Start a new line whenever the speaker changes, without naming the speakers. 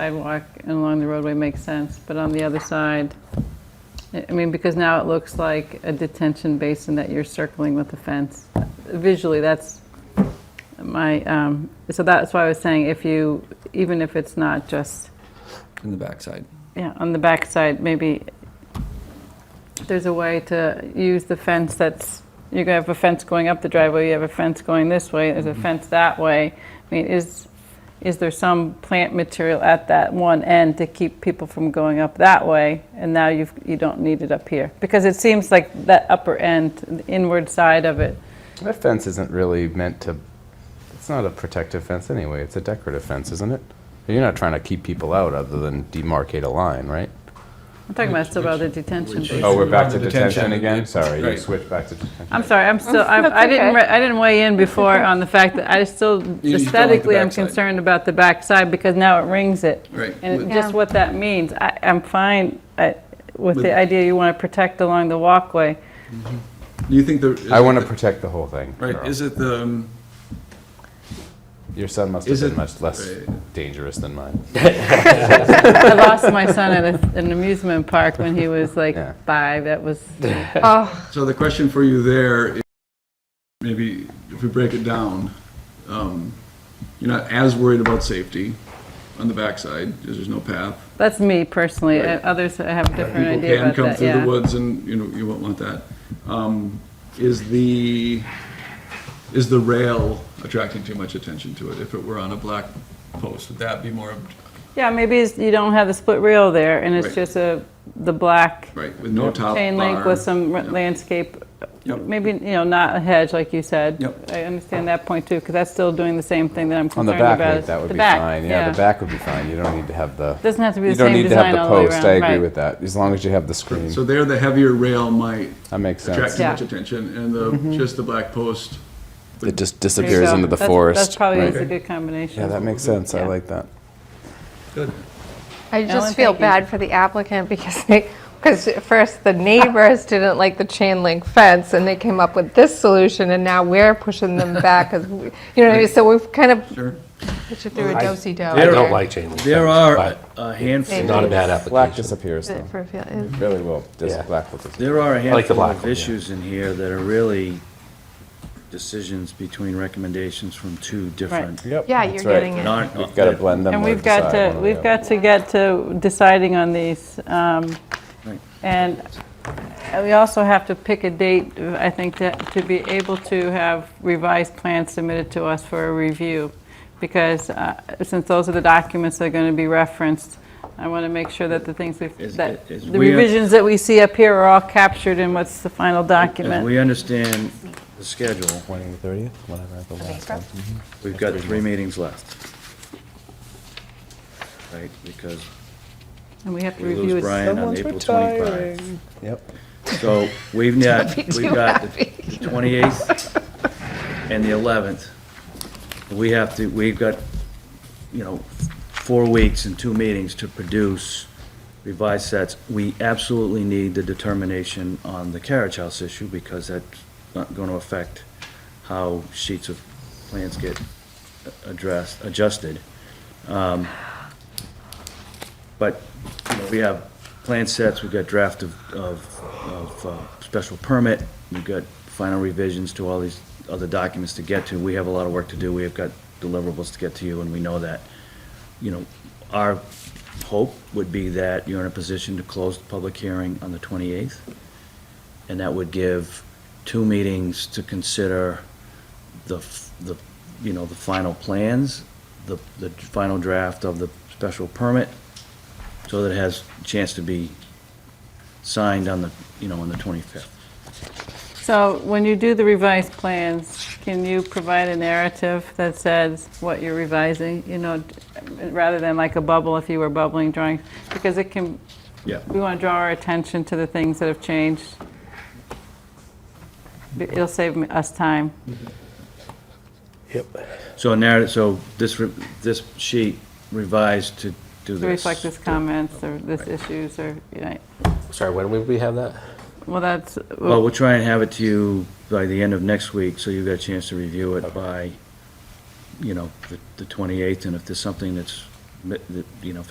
sidewalk and along the roadway makes sense, but on the other side, I I mean, because now it looks like a detention basin that you're circling with a fence. Visually, that's my, um, so that's why I was saying if you, even if it's not just,
in the backside.
yeah, on the backside, maybe there's a way to use the fence that's, you have a fence going up the driveway, you have a fence going this way, there's a fence that way. I mean, is, is there some plant material at that one end to keep people from going up that way? And now you've, you don't need it up here? Because it seems like that upper end, the inward side of it,
That fence isn't really meant to. It's not a protective fence anyway. It's a decorative fence, isn't it? You're not trying to keep people out other than demarcate a line, right?
I'm talking about still about the detention basin.
Oh, we're back
on
to
the
detention
detention.
again? Sorry, you
Right.
switched back to detention.
I'm sorry, I'm still, I I didn't, re- I didn't weigh in before on the fact that I still,
You just don't like the
aesthetically, I'm
backside.
concerned about the backside because now it rings it.
Right.
And
With-
just
Yeah.
what that means, I, I'm fine uh, with
With-
the idea you want to protect along the walkway.
Do you think the? is
I
it
want to
the-
protect the whole thing.
Right,
girl.
is it the, um,
Your son must have
is
been
it-
much less
right.
dangerous than mine.
I lost my son at a- an amusement park when he was like
Yeah.
five, that was,
Oh,
so the question for you there, is maybe if we break it down, um, you're not as worried about safety on the backside, because there's no path.
that's me personally, Uh,
Right.
others have a different
People
idea
can
about
come
that,
through the
yeah.
woods and, you know, you won't want that. Um, Is the, is the rail attracting too much attention to it? If it were on a black post, would that be more,
Yeah, maybe it's- you don't have the split rail there and it's
Right.
just a, the black
right, with no top bar?
chain link with some r-
Yeah.
landscape,
Yep.
maybe, you know, not a hedge, like you said.
Yep.
I understand that point too, because that's still doing the same thing that I'm
On the
concerned
back,
about.
right,
is
that would
the
be
back,
fine. Yeah, the back would be fine. You don't need to have the.
Doesn't have to be
You
the
don't
same
need to have
design
the
all the way
post.
around,
I agree
right.
with that. As long as you have the screen,
So there, the heavier rail might
that makes
attract
sense.
too
Yeah.
much attention, and the, just the black post.
It just
There you
disappears
go.
into the
That's-
forest.
That's probably is a
right.
good combination.
Yeah, that makes sense. I
Yeah.
like that.
Good.
I
Ellen,
just feel
thank you.
bad for the applicant because they, because at first the neighbors didn't like the chain link fence and they came up with this solution and now we're pushing them back as, we- you know, what I mean? so we've kind of
Sure.
put you through a
I-
do-si-do.
I don't like chain link
There
fence,
are
but
a
it's
handful,
Not a bad
Black
application.
disappears though.
For- for-
Mm-hmm.
Really will. Dis-
Yeah.
Black will disappear.
there are a
like the
handful
black
of
one, yeah.
issues in here that are really decisions between recommendations from two different,
Yep,
Yeah, you're
that's right.
getting it.
not.
We've got to blend them.
And
or
we've got
decide one
to,
or the
we've
other.
got to get to deciding on these. um,
Right.
And we also have to pick a date, I think, that- to be able to have revised plans submitted to us for a review. Because uh, since those are the documents that are going to be referenced, I want to make sure that the things, we've
Is-
that
is
the
we-
revisions that we see up here are all captured in what's the final
As
document.
we understand the schedule,
20 to 30th, whatever the last one. Mm-hmm.
we've got three meetings left. Right, because
And we have to
we
review
lose
it.
Brian on April 25.
Yep.
So we've got,
be
we've
too
got the
happy.
the 28th and the 11th. We have to, we've got, you know, four weeks and two meetings to produce revised sets. We absolutely need the determination on the carriage house issue because that's not going to affect how sheets of plans get addressed, adjusted. Um, But, you know, we have plan sets, we've got draft of, of, of uh, special permit, we've got final revisions to all these other documents to get to. We have a lot of work to do, we have got deliverables to get to you, and we know that. You know, our hope would be that you're in a position to close the public hearing on the 28th, and that would give two meetings to consider the, f- the, you know, the final plans, the, the final draft of the special permit, so that it has a chance to be signed on the, you know, on the 25th.
So when you do the revised plans, can you provide a narrative that says what you're revising, you know, rather than like a bubble if you were bubbling drawings? Because it can,
Yeah.
we want to draw our attention to the things that have changed. It'll save me- us time.
So now, so this, re- this sheet revised to do this.
to reflect his comments or this issues or, you know,
Sorry, when would we have that?
well, that's,
Well, we'll try and have it to you by the end of next week, so you've got a chance to review it by, you know, the- the 28th, and if there's something that's mi- the- you know, if it's